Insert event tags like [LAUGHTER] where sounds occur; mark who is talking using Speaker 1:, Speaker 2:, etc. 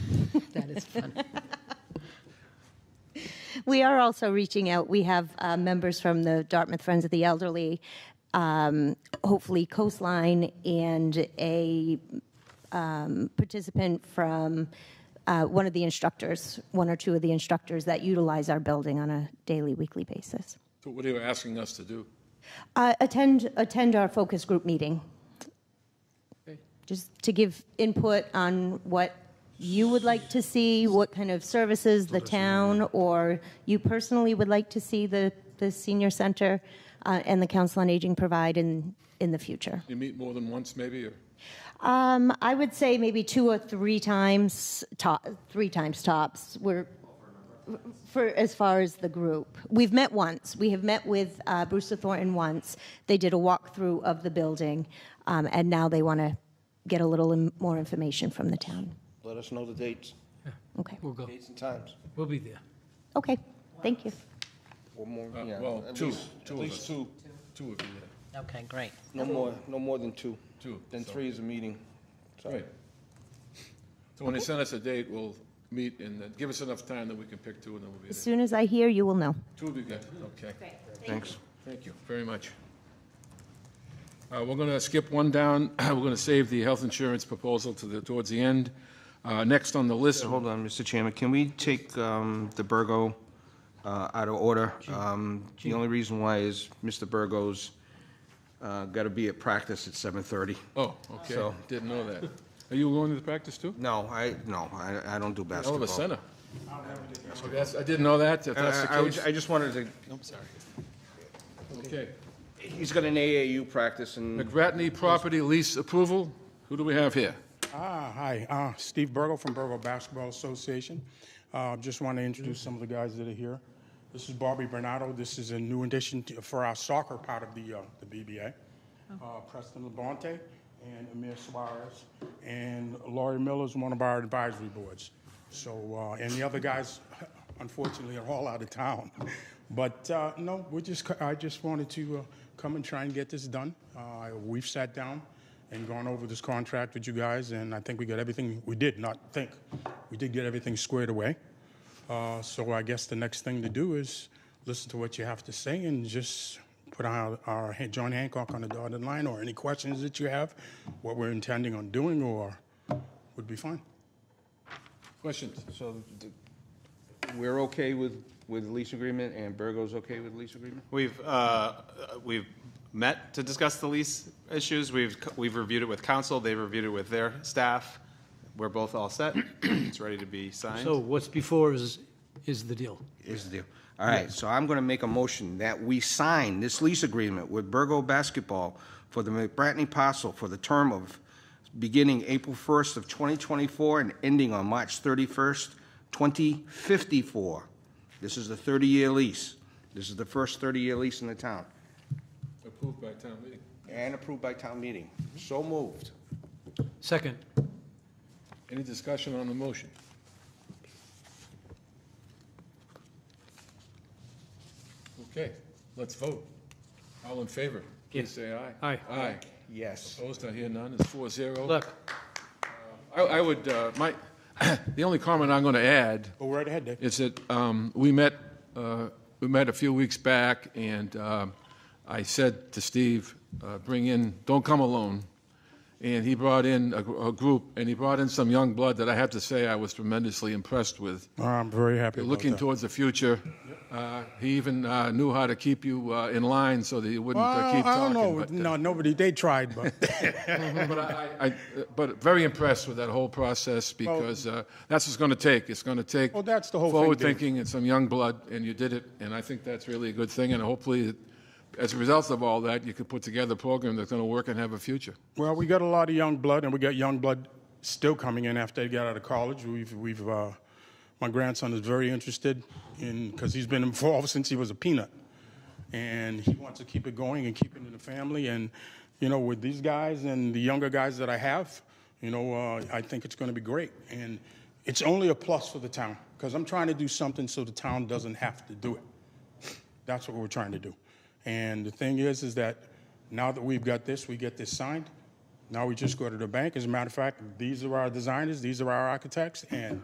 Speaker 1: That is fun.
Speaker 2: We are also reaching out. We have uh, members from the Dartmouth Friends of the Elderly, um, hopefully Coastline, and a um, participant from uh, one of the instructors, one or two of the instructors that utilize our building on a daily, weekly basis.
Speaker 3: So what are you asking us to do?
Speaker 2: Uh, attend attend our focus group meeting, just to give input on what you would like to see, what kind of services the town or you personally would like to see the the senior center uh, and the council on aging provide in in the future.
Speaker 3: You meet more than once, maybe, or?
Speaker 2: Um, I would say maybe two or three times top, three times tops. We're for as far as the group. We've met once. We have met with uh, Brewster Thornton once. They did a walkthrough of the building, um, and now they want to get a little in- more information from the town.
Speaker 4: Let us know the dates,
Speaker 2: Okay.
Speaker 1: We'll go.
Speaker 4: dates and times.
Speaker 1: We'll be there.
Speaker 2: Okay. Thank you.
Speaker 4: One more,
Speaker 3: Uh,
Speaker 4: yeah.
Speaker 3: well,
Speaker 4: at
Speaker 3: two,
Speaker 4: least-
Speaker 3: two
Speaker 4: At
Speaker 3: of
Speaker 4: least
Speaker 3: us.
Speaker 4: two,
Speaker 3: Two of you,
Speaker 5: [LAUGHS]
Speaker 3: yeah.
Speaker 5: Okay, great.
Speaker 4: no more, no more than two.
Speaker 3: Two,
Speaker 4: Then
Speaker 3: so-
Speaker 4: three is a meeting. Sorry.
Speaker 3: Right. So when they send us a date, we'll meet and then give us enough time that we can pick two and then we'll be
Speaker 2: As
Speaker 3: there.
Speaker 2: soon as I hear, you will know.
Speaker 3: Two of you guys, okay.
Speaker 4: Thanks.
Speaker 3: Thank you very much. Uh, We're going to skip one down. [CLEARS THROAT] We're going to save the health insurance proposal to the, towards the end. Uh, Next on the list,
Speaker 6: Hold on, Mr. Chairman, can we take um, the Burgo uh, out of order? Um, The only reason why is Mr. Burgo's got to be at practice at 7:30.
Speaker 3: oh, okay,
Speaker 6: So-
Speaker 3: didn't know that. Are you going to the practice too?
Speaker 6: No, I, no, I I don't do
Speaker 3: Hell
Speaker 6: basketball.
Speaker 3: of a center. Okay, that's- I didn't know that, if
Speaker 6: I-
Speaker 3: that's the
Speaker 6: I- I was-
Speaker 3: case.
Speaker 6: I just wanted to,
Speaker 3: Okay.
Speaker 6: he's got an AAU practice and
Speaker 3: McGratney property lease approval. Who do we have here?
Speaker 7: Ah, hi, uh, Steve Burgo from Burgo Basketball Association. Uh, just want to introduce some of the guys that are here. This is Barbie Bernardo. This is a new addition to, for our soccer part of the, uh, the BBA. Uh, Preston Labonte and Amir Suarez. And Laurie Miller is one of our advisory boards. So, uh, and the other guys, unfortunately, are all out of town. [LAUGHS] But uh, no, we're just, co- I just wanted to uh, come and try and get this done. Uh, we've sat down and gone over this contract with you guys, and I think we got everything, we did, not think, we did get everything squared away. Uh, So I guess the next thing to do is listen to what you have to say and just put our, our Han- John Hancock on the dotted line, or any questions that you have, what we're intending on doing, or would be fine.
Speaker 3: Questions?
Speaker 6: so th- we're okay with, with lease agreement and Burgo's okay with lease agreement?
Speaker 8: We've, uh, we've met to discuss the lease issues. We've, we've reviewed it with council. They've reviewed it with their staff. We're both all set. [CLEARS THROAT] It's ready to be signed.
Speaker 1: So what's before is, is the deal.
Speaker 6: is the deal. All right, so I'm going to make a motion that we sign this lease agreement with Burgo Basketball for the McBratney parcel for the term of beginning April 1st of 2024 and ending on March 31st, 2054. This is the 30-year lease. This is the first 30-year lease in the town
Speaker 3: Approved by town meeting.
Speaker 6: and approved by town meeting. So moved.
Speaker 1: Second,
Speaker 3: Any discussion on the motion? Okay, let's vote. All in favor, please say aye.
Speaker 1: Aye.
Speaker 3: Aye.
Speaker 6: Yes.
Speaker 3: Opposed, I hear none, it's four zero.
Speaker 1: look,
Speaker 3: I, I would, uh, my, [COUGHS] the only comment I'm going to add
Speaker 7: Go right ahead, Dave.
Speaker 3: is that um, we met, uh, we met a few weeks back, and um, I said to Steve, uh, bring in, don't come alone. And he brought in a gr- a group, and he brought in some young blood that I have to say I was tremendously impressed with
Speaker 7: Uh, I'm very happy about
Speaker 3: looking
Speaker 7: that.
Speaker 3: towards the future. Uh, He even uh, knew how to keep you uh, in line so that you wouldn't uh,
Speaker 7: Well,
Speaker 3: keep
Speaker 7: I don't
Speaker 3: talking.
Speaker 7: know,
Speaker 3: but, uh,
Speaker 7: no, nobody, they tried, but.
Speaker 3: [LAUGHS] But I, I, I- but very impressed with that whole process because uh, that's what's going to take. It's going to take.
Speaker 7: Well, that's the whole thing, Dave.
Speaker 3: Forward thinking and some young blood, and you did it, and I think that's really a good thing. And hopefully, as a result of all that, you can put together a program that's going to work and have a future.
Speaker 7: Well, we got a lot of young blood, and we got young blood still coming in after they got out of college. We've, we've, uh, my grandson is very interested in because he's been involved since he was a peanut, and he wants to keep it going and keep it in the family. And you know, with these guys and the younger guys that I have, you know, uh, I think it's going to be great, and it's only a plus for the town because I'm trying to do something so the town doesn't have to do it. That's what we're trying to do. And the thing is, is that now that we've got this, we get this signed. Now we just go to the bank. As a matter of fact, these are our designers, these are our architects, and